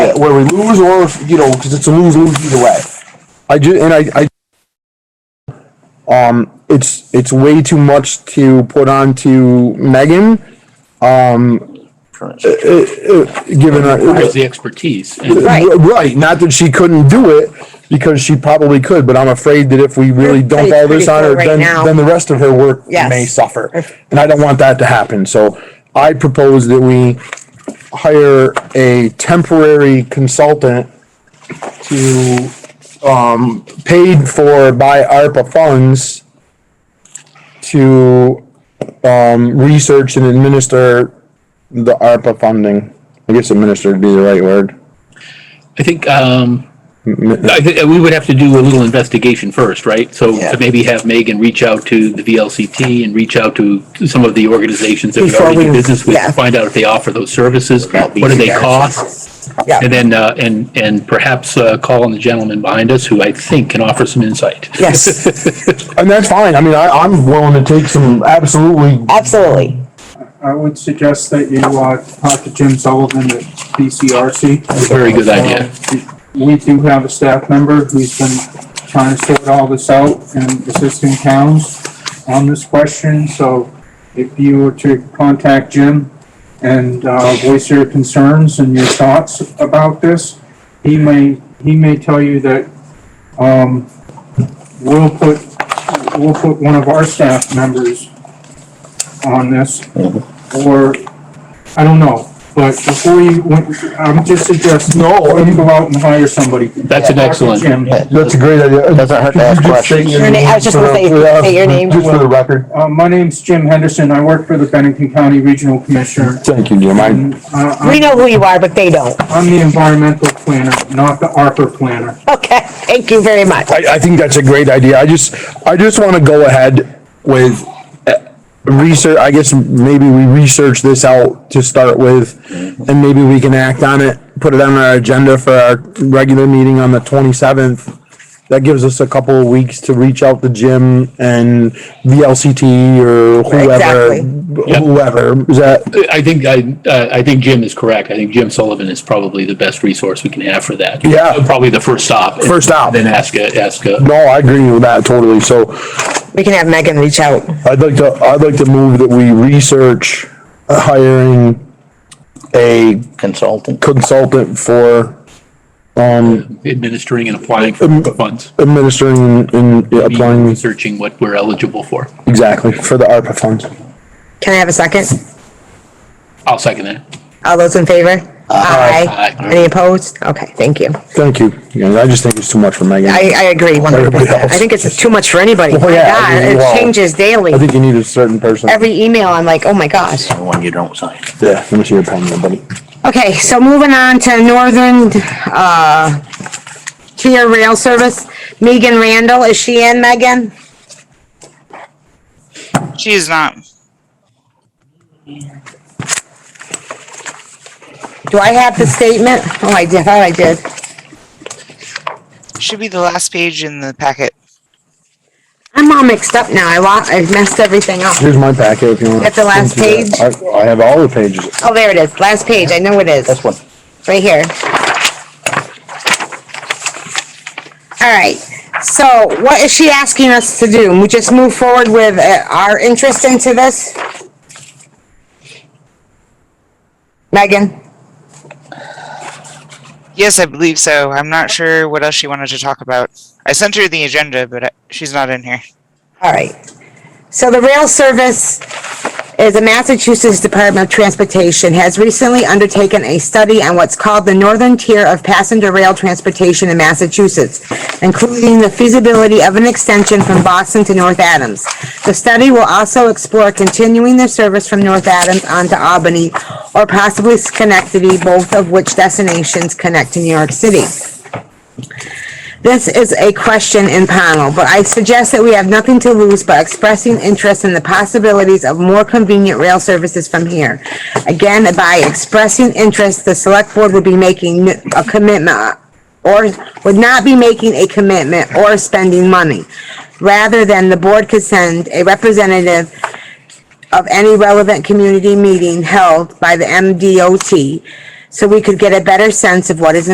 where we lose or, if, you know, because it's a lose lose either way. I ju, and I, I, um, it's, it's way too much to put on to Megan, Correct. given her. Where's the expertise? And Right. R- Right, not that she couldn't do it, because she probably could, but I'm afraid that if we really You're dump pretty- all this pretty on her, full right then, now. then the rest of her work Yes. may suffer. And I don't want that to happen, so I propose that we hire a temporary consultant to, um, paid for by ARPA funds to, um, research and administer the ARPA funding. I guess administer would be the right word. I think, um, I think we would have to do a little investigation first, right? So Yeah. to maybe have Megan reach out to the VLCT and reach out to some of the organizations that we Before already do we- business with, yeah. to find out if they offer those services, what do they cost? Yeah. And then, uh, and, and perhaps, uh, call on the gentleman behind us who I think can offer some insight. Yes, And that's fine. I mean, I, I'm willing to take some absolutely. absolutely. I would suggest that you, uh, talk to Jim Sullivan at BCRC. Very good idea. Uh, We do have a staff member who's been trying to sort all this out and assisting towns on this question, so if you were to contact Jim and, uh, voice your concerns and your thoughts about this, he may, he may tell you that, um, we'll put, we'll put one of our staff members on this, or, I don't know, but before you, when- I'm just suggesting, No, or you go out and hire somebody. That's an excellent. Jim. That's a great idea. Doesn't hurt to Could you ask just say questions. your Your na- I was just gonna name say- for the- say your name. Just for the record. Uh, my name's Jim Henderson, I work for the Bennington County Regional Commissioner. Thank you, Jim. I, And, uh, We I'm, know who you are, but they don't. I'm the environmental planner, not the ARPA planner. Okay, thank you very much. I, I think that's a great idea. I just, I just want to go ahead with uh, research. I guess maybe we research this out to start with and maybe we can act on it, put it on our agenda for our regular meeting on the twenty-seventh. That gives us a couple of weeks to reach out to Jim and VLCT or whoever, Exactly. Yep. whoever. Is that, I think, I, uh, I think Jim is correct. I think Jim Sullivan is probably the best resource we can have for that. Yeah. Probably the first stop. First stop. Then ask, a- ask, a- No, I agree with that totally. So We can have Megan reach out. I'd like to, I'd like to move that we research hiring a Consultant. consultant for um, administering and applying for ARPA funds. administering and Um, applying, Researching what we're eligible for. exactly, for the ARPA funds. Can I have a second? I'll second that. All those in favor? Aye. Aye. Any opposed? Okay, thank you. Thank you. Yeah, I just think it's too much for Megan. I, I agree one hundred Everybody percent. else. I think it's too much for anybody. Well, My yeah, God, I mean, it well, changes daily. I think you need a certain person. Every email, I'm like, oh my gosh. The one you don't sign. Yeah, let me see your pen, there, buddy. Okay, so moving on to Northern, uh, Tier Rail Service, Megan Randall, is she in, Megan? She is not. Do I have the statement? Oh, I did, oh, I did. Should be the last page in the packet. I'm all mixed up now, I lost, I messed everything up. Here's my packet if you want. At the last page? I, I have all the pages. Oh, there it is, last page, I know it is. This one. right here. All right, so what is she asking us to do? We just move forward with uh, our interest into this? Megan? Yes, I believe so. I'm not sure what else she wanted to talk about. I sent her the agenda, but uh, she's not in here. All right. So the rail service is the Massachusetts Department of Transportation has recently undertaken a study on what's called the northern tier of passenger rail transportation in Massachusetts, including the feasibility of an extension from Boston to North Adams. The study will also explore continuing the service from North Adams onto Albany or possibly Schenectady, both of which destinations connect to New York City. This is a question in panel, but I suggest that we have nothing to lose by expressing interest in the possibilities of more convenient rail services from here. Again, by expressing interest, the select board would be making n- a commitment or would not be making a commitment or spending money. Rather than the board could send a representative of any relevant community meeting held by the MDOT so we could get a better sense of what is